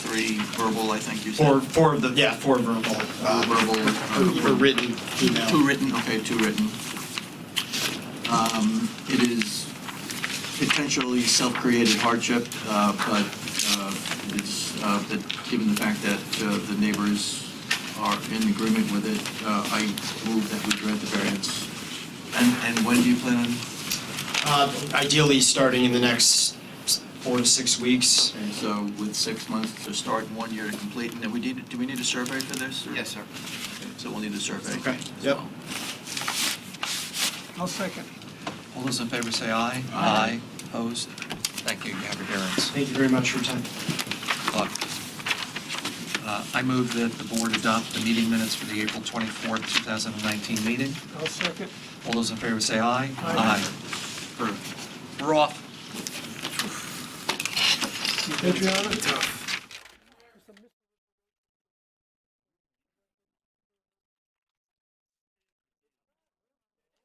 three verbal, I think you Four, said. four of the, yeah, four verbal, Uh, uh, Verbal. or- or uh, written Two email. written, okay, two written. Um, It is potentially self-created hardship, uh, but uh, it's, uh, that, given the fact that uh, the neighbors are in agreement with it, uh, I move that we grant the variance. And, and when do you plan on? Uh, Ideally, starting in the next four to six weeks. And so with six months to start and one year to complete, and then we need, do we need a survey for this? or- Yes, sir. Okay, So we'll need a survey. Okay, as yep. well. I'll second. All those in favor say aye. Aye. Opposed? Thank you, you have your variance. Thank you very much for your time. Good luck. Uh, I move that the board adopt the meeting minutes for the April 24th, 2019 meeting. I'll second. All those in favor say aye. Aye. Approved. We're off. Adriana?